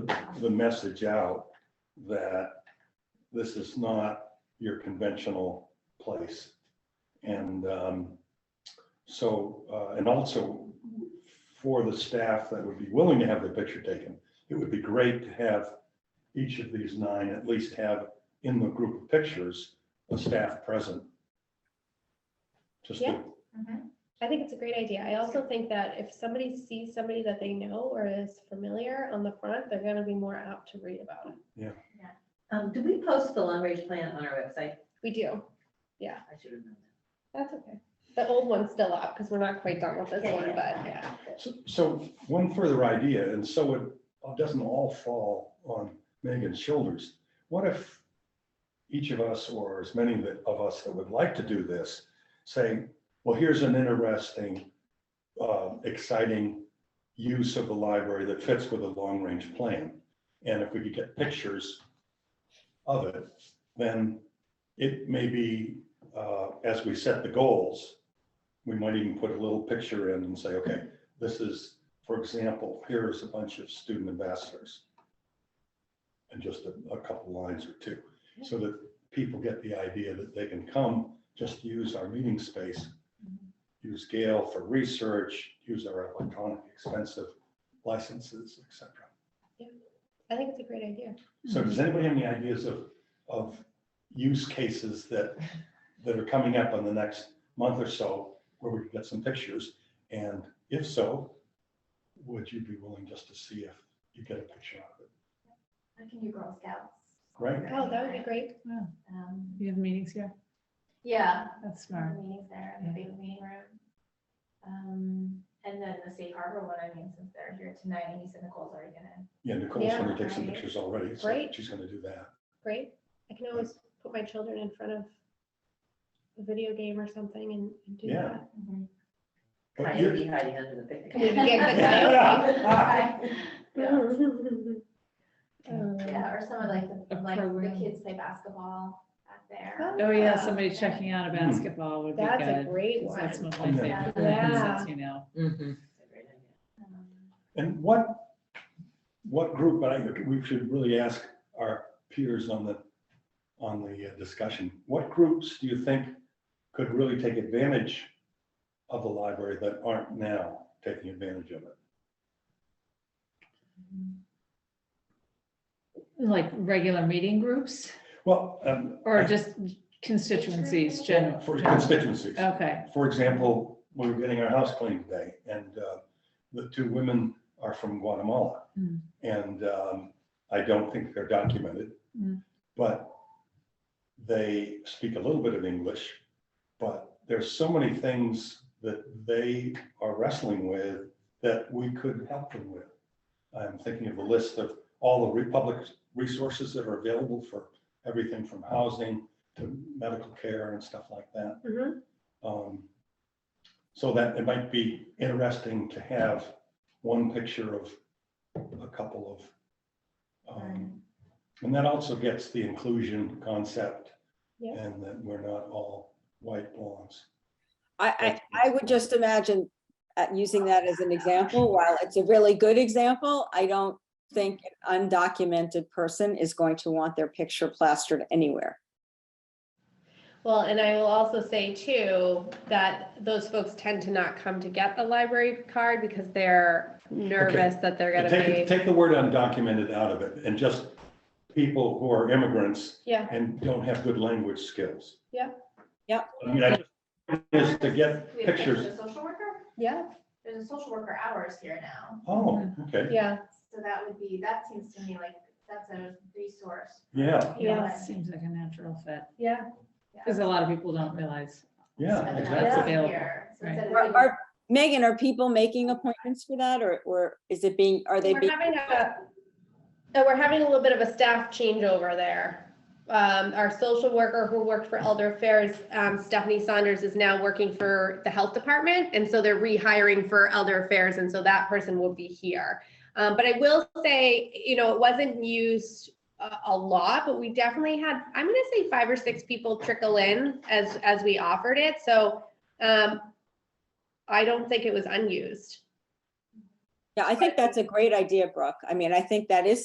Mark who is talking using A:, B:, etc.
A: the message out that this is not your conventional place. And um, so, uh, and also for the staff that would be willing to have their picture taken, it would be great to have each of these nine at least have in the group of pictures, a staff present. Just to
B: Yeah. I think it's a great idea. I also think that if somebody sees somebody that they know or is familiar on the front, they're gonna be more apt to read about it.
C: Um, do we post the long range plan on our website?
B: We do.
C: I should remember.
B: That's okay. The old one's still up because we're not quite done with this
C: Yeah,
B: one,
C: yeah.
B: but yeah.
A: So, so one further idea, and so it doesn't all fall on Megan's shoulders. What if each of us, or as many that- of us that would like to do this, say, well, here's an interesting, uh, exciting use of the library that fits with a long-range plan. And if we could get pictures of it, then it may be, uh, as we set the goals, we might even put a little picture in and say, okay, this is, for example, here's a bunch of student ambassadors. And just a, a couple lines or two, so that people get the idea that they can come, just use our meeting space. Use Gale for research, use our electronic expensive licenses, et cetera.
B: I think it's a great idea.
A: So does anybody have any ideas of, of use cases that, that are coming up in the next month or so where we could get some pictures? And if so, would you be willing just to see if you get a picture out of it?
D: I can do Girl Scouts.
A: Right.
B: Oh, that would be great.
D: Um,
E: You have meetings here?
D: Yeah,
E: That's smart.
D: meetings there in the big meeting room. Um, And then the Safe Harbor one, I mean, since they're here tonight, and you said Nicole's already gonna,
A: Yeah, Nicole's gonna take some
D: Yeah.
A: pictures already, so
B: Great.
A: she's gonna do that.
B: Great. I can always put my children in front of a video game or something and and do
A: Yeah.
B: that.
A: But
C: Coyote
A: you,
C: hiding under the
B: Can we
C: picnic.
B: get the coyote?
D: Yeah, Oh,
B: Um,
D: Yeah, or some of like, the-
E: A
D: like the
E: program.
D: kids play basketball back there.
B: Oh,
E: Oh, yeah,
D: Um,
E: somebody
D: and-
E: checking out a
A: Hmm.
E: basketball would be
B: That's a
E: good.
B: great
E: 'cause
B: one.
E: That's one of my favorite things,
B: Yeah.
E: as you know.
C: Mhm.
D: um,
A: and what, what group, but I, think we should really ask our peers on the, on the uh, discussion. What groups do you think could really take advantage of the library that aren't now taking advantage of it?
E: Like regular meeting groups
A: Well, um,
E: or just constituencies general?
A: for
E: general?
A: constituencies.
E: Okay,
A: For example, we were getting our house cleaned today and uh, the two women are from Guatemala.
E: Mm.
A: And um, I don't think they're documented,
E: Mm.
A: but they speak a little bit of English. But there's so many things that they are wrestling with that we could help them with. I'm thinking of the list of all the republic resources that are available for everything from housing to medical care and stuff like that.
B: Mhm.
A: Um, So that it might be interesting to have one picture of a couple of. um, And that also gets the inclusion concept.
B: Yeah.
A: And that we're not all white blondes.
F: I, I, I would just imagine uh, using that as an example, while it's a really good example, I don't think an undocumented person is going to want their picture plastered anywhere.
B: Well, and I will also say too, that those folks tend to not come to get the library card because they're nervous that they're gonna
A: Take,
B: be.
A: take the word undocumented out of it and just people who are immigrants
B: Yeah,
A: and don't have good language skills.
B: Yeah.
F: Yeah.
A: I mean, I just, is to get
D: we have a
A: pictures.
D: Social worker,
B: yeah,
D: there's a social worker hours here now,
A: Oh, okay,
B: yeah,
D: so that would be, that seems to me like, that's a resource.
A: yeah,
E: yeah, that
D: Yes.
E: seems like a natural fit,
B: yeah.
D: Yeah.
E: because a lot of people don't realize.
A: yeah,
D: And then
A: exactly.
D: that's
E: Available,
D: here, so
E: right.
D: instead of
F: Are-
D: doing-
F: are- Megan, are people making appointments for that or, or is it being, are they
B: We're
F: being?
B: having a, uh, we're having a little bit of a staff changeover there. Um, our social worker who worked for Elder Affairs, um, Stephanie Saunders is now working for the Health Department. And so they're rehiring for Elder Affairs. And so that person will be here. Um, but I will say, you know, it wasn't used a, a lot, but we definitely had, I'm going to say five or six people trickle in as, as we offered it. So, um, I don't think it was unused.
F: Yeah, I think that's a great idea, Brooke. I mean, I think that is